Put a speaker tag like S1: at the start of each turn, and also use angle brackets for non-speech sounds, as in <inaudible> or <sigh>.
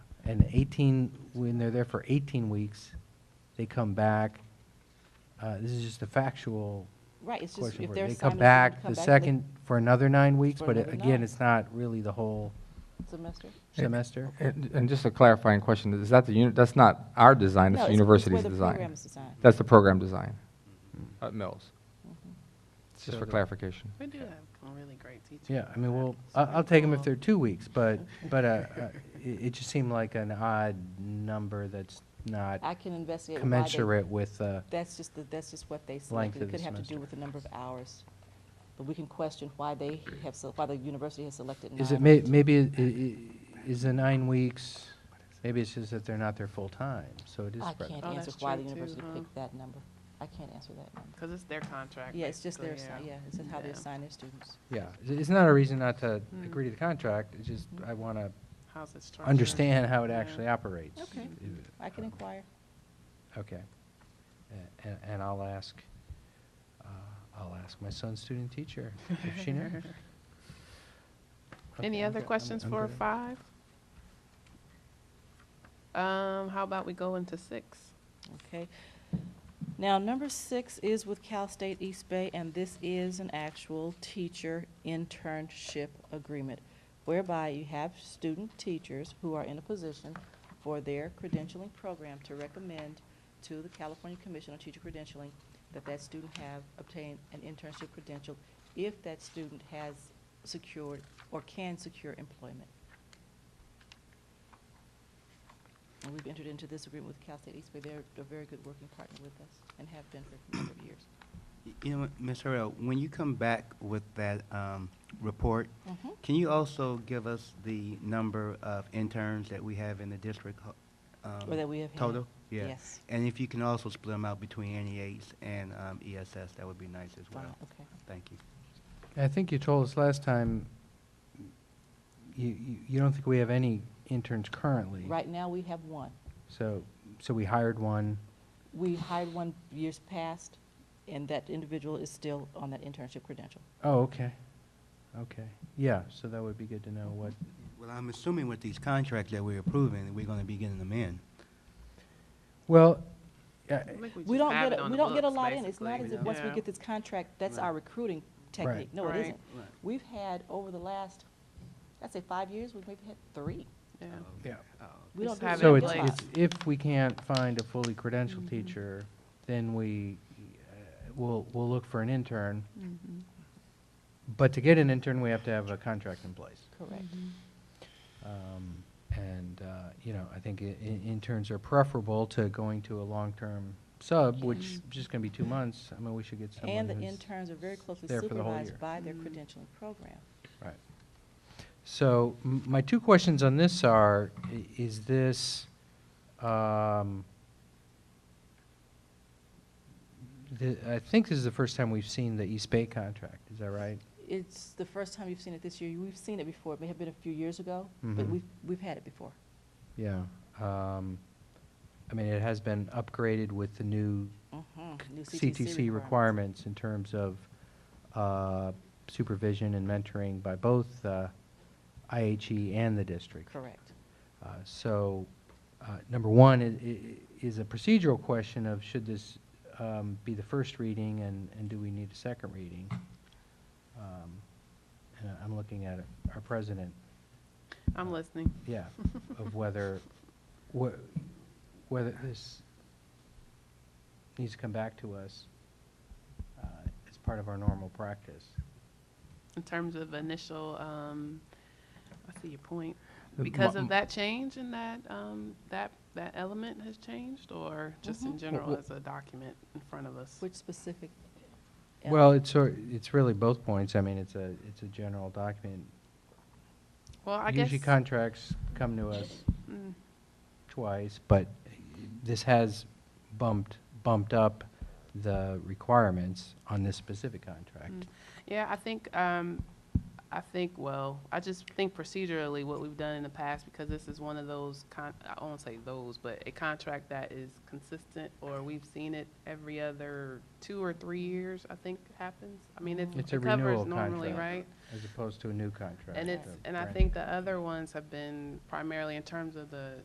S1: And 18, when they're there for 18 weeks, they come back, uh, this is just a factual
S2: Right, it's just
S1: question.
S2: if
S1: for
S2: they're
S1: you. They
S2: simultaneous.
S1: come back
S2: come
S1: the
S2: back
S1: second, for another nine weeks,
S2: For
S1: but it-
S2: another
S1: again,
S2: nine.
S1: it's not really the whole
S2: Semester?
S1: semester.
S3: And and just a clarifying question, is that the, uni- that's not our design,
S2: No,
S3: it's
S2: it's- it's
S3: the university's
S2: where the
S3: design?
S2: program is designed.
S3: That's the program design at Mills,
S1: Mm-hmm. So
S3: just for
S1: the-
S3: clarification.
S4: We do have really great teachers.
S1: Yeah, I mean, well, I- I'll take them if they're two weeks,
S2: <laughs>
S1: but, but uh, uh, it it just seemed like an odd number that's not
S2: I can investigate why they,
S1: commensurate with, uh,
S2: that's just, the- that's just what they
S1: Length
S2: selected.
S1: of
S2: It
S1: the
S2: could have to do
S1: semester.
S2: with the number of hours. But we can question why they have, se- why the university has selected nine.
S1: is it,
S2: or
S1: may-
S2: ten.
S1: maybe, it- i- i- is the nine weeks, maybe it's just that they're not there full-time, so it is
S2: I
S1: spread
S2: can't
S1: out.
S4: Oh,
S2: answer
S4: that's
S2: why the
S4: true, too,
S2: university
S4: huh?
S2: picked that number. I can't answer that number.
S4: Because it's their contract.
S2: Yeah, it's just their,
S4: basically,
S2: assi- yeah, it's how they
S4: Yeah.
S2: assign their students.
S1: Yeah, i- it's not a reason not to
S4: Mm.
S1: agree to the contract, it's just I want to
S4: How's it structured?
S1: understand how it
S4: Yeah.
S1: actually operates.
S2: Okay.
S1: If-
S2: I can inquire.
S1: uh, Okay. A- a- And I'll ask, uh, I'll ask my son's student teacher if she knows.
S4: Any
S1: Okay, I'm
S4: other
S1: good. I'm-
S4: questions
S1: I'm
S4: for
S1: good.
S4: five? Um, how about we go into six?
S2: Okay. Now, number six is with Cal State East Bay, and this is an actual teacher internship agreement whereby you have student teachers who are in a position for their credentialing program to recommend to the California Commission on Teacher Credentialing that that student have obtained an internship credential if that student has secured or can secure employment. And we've entered into this agreement with Cal State East Bay. They're a very good working partner with us and have been for a number of years.
S5: You know, Ms. Harrell, when you come back with that um, report,
S2: Mhm.
S5: can you also give us the number of interns that we have in the district? ho- um,
S2: Or that we have had.
S5: Total? Yeah.
S2: Yes.
S5: And if you can also split them out between NEAs and um, ESS, that would be nice as
S2: Fine,
S5: well.
S2: okay.
S5: Thank you.
S1: I think you told us last time, you, you you don't think we have any interns currently.
S2: Right now, we have one.
S1: So, so we hired one.
S2: We hired one years past, and that individual is still on that internship credential.
S1: Oh, okay, okay. Yeah, so that would be good to know what,
S5: Well, I'm assuming with these contracts that we're approving, we're going to be getting them in.
S1: well, yeah,
S4: I think
S2: We
S4: just
S2: don't
S4: have
S2: get,
S4: it
S2: a-
S4: on
S2: we
S4: the
S2: don't get a
S4: books,
S2: lot in. It's not as
S4: basically,
S2: if, once we
S4: yeah.
S2: get this contract, that's our recruiting technique. No,
S4: Right.
S2: it isn't.
S5: Right.
S2: We've had, over the last, I'd say, five years, we've maybe had three.
S4: Yeah.
S1: yeah.
S2: We
S4: We
S2: don't
S4: just
S2: do
S4: have
S2: that
S4: it
S1: So
S2: a
S4: in
S1: it's,
S2: lot.
S4: place.
S1: it's, if we can't find a fully
S2: Mm-hmm.
S1: credentialed teacher, then we, uh, we'll, we'll look for an intern.
S2: Mm-hmm.
S1: But to get an intern, we have to have a contract in place.
S2: Correct.
S1: Um, And, uh, you know, I think i- i- interns are preferable to going to a long-term sub, which is just gonna be two months. I mean, we should get someone
S2: And the
S1: who's,
S2: interns are very closely
S1: there for the whole year.
S2: supervised by their
S4: Mm-hmm.
S2: credentialing program.
S1: right. So m- my two questions on this are, i- is this, um, the- I think this is the first time we've seen the East Bay contract, is that right?
S2: It's the first time you've seen it this year. We've seen it before. It may have been a few years ago, but
S1: Mhm.
S2: we've, we've had it before.
S1: Yeah. um, I mean, it has been upgraded with the new
S2: Mhm. New
S1: CTC
S2: requirement.
S1: requirements in terms of uh, supervision and mentoring by both uh, IHE E and the district.
S2: Correct.
S1: Uh, So, uh, number one i- i- is a procedural question of should this um, be the first reading and and do we need a second reading? Um, And I- I'm looking at our president,
S4: I'm listening. <laughs>
S1: yeah, of whether, wh- whether this needs to come back to us uh, as part of our normal practice.
S4: In terms of initial, um, I see your point.
S1: The
S4: Because
S1: mo-
S4: of that change and that, um, that, that element has changed or just in general
S1: well-
S4: as a document in front of us?
S2: Mm-hmm. Which specific?
S1: Well, it's, sor- it's really both points. I mean, it's a, it's a general document.
S4: Well, I guess.
S1: Usually contracts come to us
S4: mm,
S1: twice, but this has bumped, bumped up the requirements on this specific contract.
S4: Mm. Yeah, I think, um, I think, well, I just think procedurally what we've done in the past, because this is one of those con, I won't say those, but a contract that is consistent, or we've seen it every other two or three years, I think happens. I mean, it's, it
S1: It's a
S4: covers
S1: renewal
S4: normally,
S1: contract.
S4: right?
S1: As opposed to a new contract.
S4: Mm. And it's,
S1: of
S4: and I
S1: brand-
S4: think the other ones have been primarily in terms of the